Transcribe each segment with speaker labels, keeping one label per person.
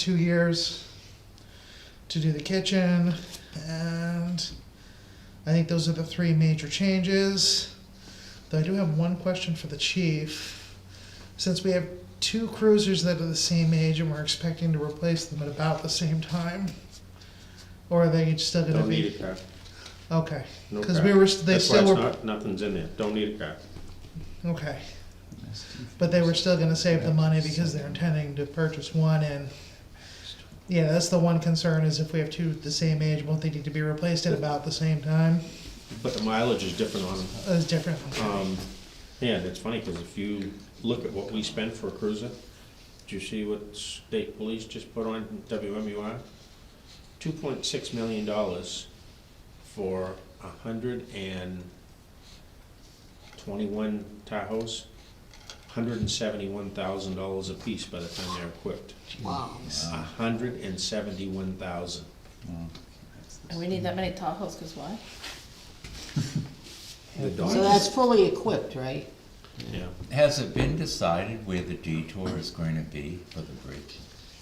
Speaker 1: two years to do the kitchen, and I think those are the three major changes. Though I do have one question for the chief. Since we have two cruisers that are the same age and we're expecting to replace them at about the same time, or are they still gonna
Speaker 2: Don't
Speaker 1: be?
Speaker 2: need a car.
Speaker 1: Okay,
Speaker 2: No
Speaker 1: because
Speaker 2: car.
Speaker 1: we were, they
Speaker 2: That's why
Speaker 1: still
Speaker 2: it's
Speaker 1: were,
Speaker 2: not, nothing's in there. Don't need a car.
Speaker 1: okay, but they were still gonna save the money because they're intending to purchase one and, yeah, that's the one concern is if we have two the same age, won't they need to be replaced at about the same time?
Speaker 2: But the mileage is different on them.
Speaker 1: That's different,
Speaker 2: Um, yeah, that's funny, because if you look at what we spend for a cruiser, did you see what state police just put on WMUR? Two point six million dollars for a hundred and twenty-one Tahoes, hundred and seventy-one thousand dollars apiece by the time they're equipped.
Speaker 3: Wow.
Speaker 2: A hundred and seventy-one thousand.
Speaker 4: Mm.
Speaker 5: And we need that many Tahoes, cause why?
Speaker 2: The
Speaker 3: So
Speaker 2: Dodge,
Speaker 3: that's fully equipped, right?
Speaker 2: yeah.
Speaker 4: Has it been decided where the detour is going to be for the bridge?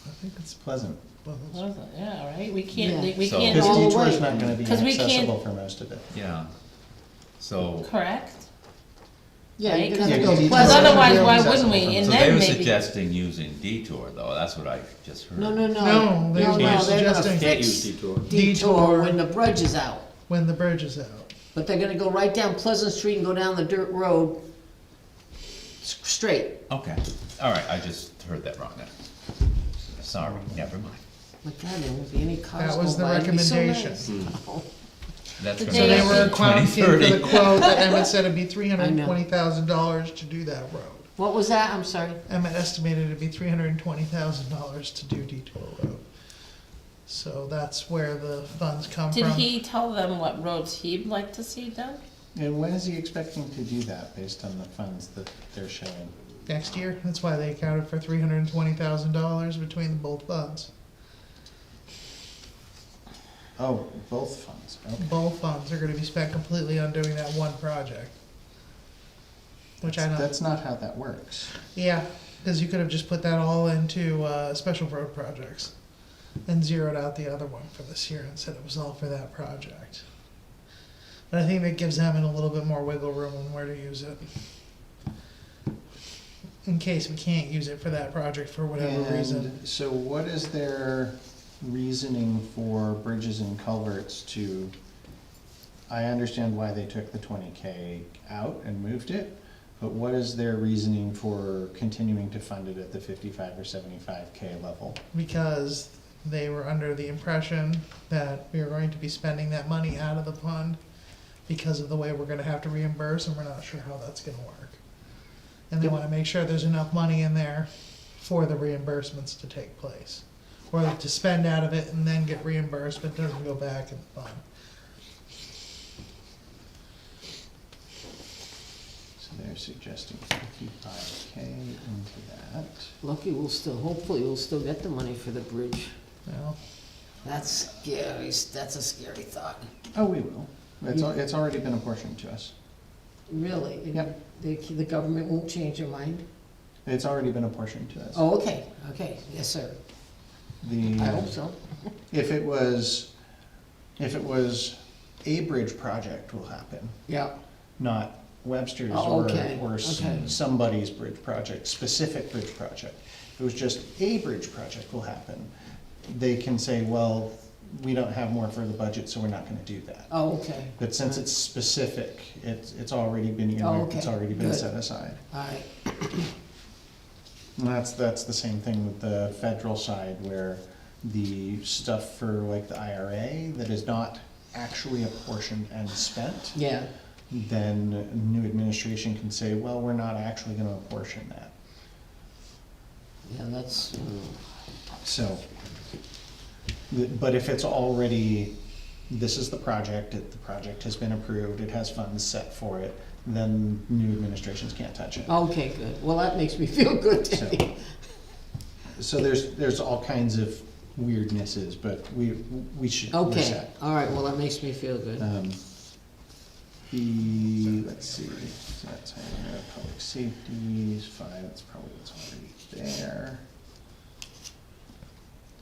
Speaker 1: I think it's,
Speaker 6: Pleasant.
Speaker 1: well, it's-
Speaker 5: What is it? Yeah, right, we can't, we
Speaker 4: So-
Speaker 5: can't
Speaker 6: Because
Speaker 3: all the
Speaker 5: all,
Speaker 6: detour's
Speaker 3: way.
Speaker 6: not gonna be
Speaker 5: 'Cause we can't-
Speaker 6: accessible for most of it.
Speaker 4: Yeah. So,
Speaker 5: correct?
Speaker 3: Yeah,
Speaker 5: Right,
Speaker 3: you're gonna have
Speaker 5: 'cause
Speaker 3: to
Speaker 6: Yeah,
Speaker 3: go
Speaker 6: 'cause you-
Speaker 5: Cause
Speaker 3: Pleasant to
Speaker 5: otherwise,
Speaker 3: Real
Speaker 5: why
Speaker 3: Pleasant.
Speaker 5: wouldn't we? And
Speaker 4: so they
Speaker 5: then
Speaker 4: were
Speaker 5: maybe.
Speaker 4: suggesting using detour though, that's what I just heard.
Speaker 3: No, no, no.
Speaker 1: No, they
Speaker 3: No,
Speaker 1: were
Speaker 3: no, they're gonna
Speaker 1: suggesting-
Speaker 2: Can't use
Speaker 3: fix
Speaker 2: detour.
Speaker 3: detour when the bridge is out.
Speaker 1: when the bridge is out.
Speaker 3: But they're gonna go right down Pleasant Street and go down the dirt road s- straight.
Speaker 4: Okay, all right, I just heard that wrong then. Sorry, never mind.
Speaker 3: But God, there won't be any cars
Speaker 1: That was
Speaker 3: go
Speaker 1: the
Speaker 3: by. It'd be so
Speaker 1: recommendation.
Speaker 3: nice.
Speaker 4: That's
Speaker 5: The
Speaker 4: gonna
Speaker 1: So they
Speaker 5: Yeah.
Speaker 1: were
Speaker 4: be
Speaker 1: accounting for the
Speaker 4: 2030.
Speaker 1: quote that Emmett said it'd be three hundred
Speaker 3: I
Speaker 1: and
Speaker 3: know.
Speaker 1: twenty thousand dollars to do that road.
Speaker 3: What was that? I'm sorry.
Speaker 1: Emmett estimated it'd be three hundred and twenty thousand dollars to do detour road. So that's where the funds come
Speaker 5: Did
Speaker 1: from.
Speaker 5: he tell them what roads he'd like to see done?
Speaker 6: And when is he expecting to do that based on the funds that they're showing?
Speaker 1: Next year, that's why they accounted for three hundred and twenty thousand dollars between both funds.
Speaker 6: Oh, both funds, okay.
Speaker 1: Both funds are gonna be spent completely on doing that one project. Which I don't,
Speaker 6: That's not how that works.
Speaker 1: yeah, cause you could have just put that all into, uh, special road projects. And zeroed out the other one for this year and said it was all for that project. But I think that gives them a little bit more wiggle room on where to use it. In case we can't use it for that project for whatever reason.
Speaker 6: And so what is their reasoning for bridges and culverts to, I understand why they took the twenty K out and moved it, but what is their reasoning for continuing to fund it at the fifty-five or seventy-five K level?
Speaker 1: because they were under the impression that we were going to be spending that money out of the fund because of the way we're gonna have to reimburse, and we're not sure how that's gonna work. And they wanna make sure there's enough money in there for the reimbursements to take place, or to spend out of it and then get reimbursed, but doesn't go back in the fund.
Speaker 6: So they're suggesting fifty-five K into that.
Speaker 3: Lucky we'll still, hopefully we'll still get the money for the bridge.
Speaker 1: Well,
Speaker 3: That's scary. That's a scary thought.
Speaker 6: Oh, we will. It's, al- it's already been apportioned to us.
Speaker 3: Really?
Speaker 6: Yep.
Speaker 3: The, the government won't change their mind?
Speaker 6: It's already been apportioned to us.
Speaker 3: Oh, okay, okay, yes, sir. I
Speaker 6: The,
Speaker 3: hope so.
Speaker 6: if it was, if it was a bridge project will happen,
Speaker 3: Yeah.
Speaker 6: not Webster's
Speaker 3: Oh,
Speaker 6: or,
Speaker 3: okay,
Speaker 6: or s-
Speaker 3: okay.
Speaker 6: somebody's bridge project, specific bridge project. If it was just a bridge project will happen, they can say, well, we don't have more for the budget, so we're not gonna do that.
Speaker 3: Oh, okay.
Speaker 6: But since it's specific, it's, it's already been, in
Speaker 3: Oh,
Speaker 6: there, it's
Speaker 3: okay,
Speaker 6: already been
Speaker 3: good.
Speaker 6: set aside.
Speaker 3: All right.
Speaker 6: And that's, that's the same thing with the federal side where the stuff for like the IRA that is not actually apportioned and spent,
Speaker 3: Yeah.
Speaker 6: then a new administration can say, well, we're not actually gonna apportion that.
Speaker 3: Yeah, that's,
Speaker 6: So, th- but if it's already, this is the project, it- the project has been approved, it has funds set for it, then new administrations can't touch it.
Speaker 3: okay, good. Well, that makes me feel good,
Speaker 6: So-
Speaker 3: Debbie.
Speaker 6: So there's, there's all kinds of weirdnesses, but we, we should, we're
Speaker 3: Okay,
Speaker 6: set.
Speaker 3: all right, well, that makes me feel good.
Speaker 6: Um, The, let's see, so that's, I don't know, public safety, five, that's probably what's already there.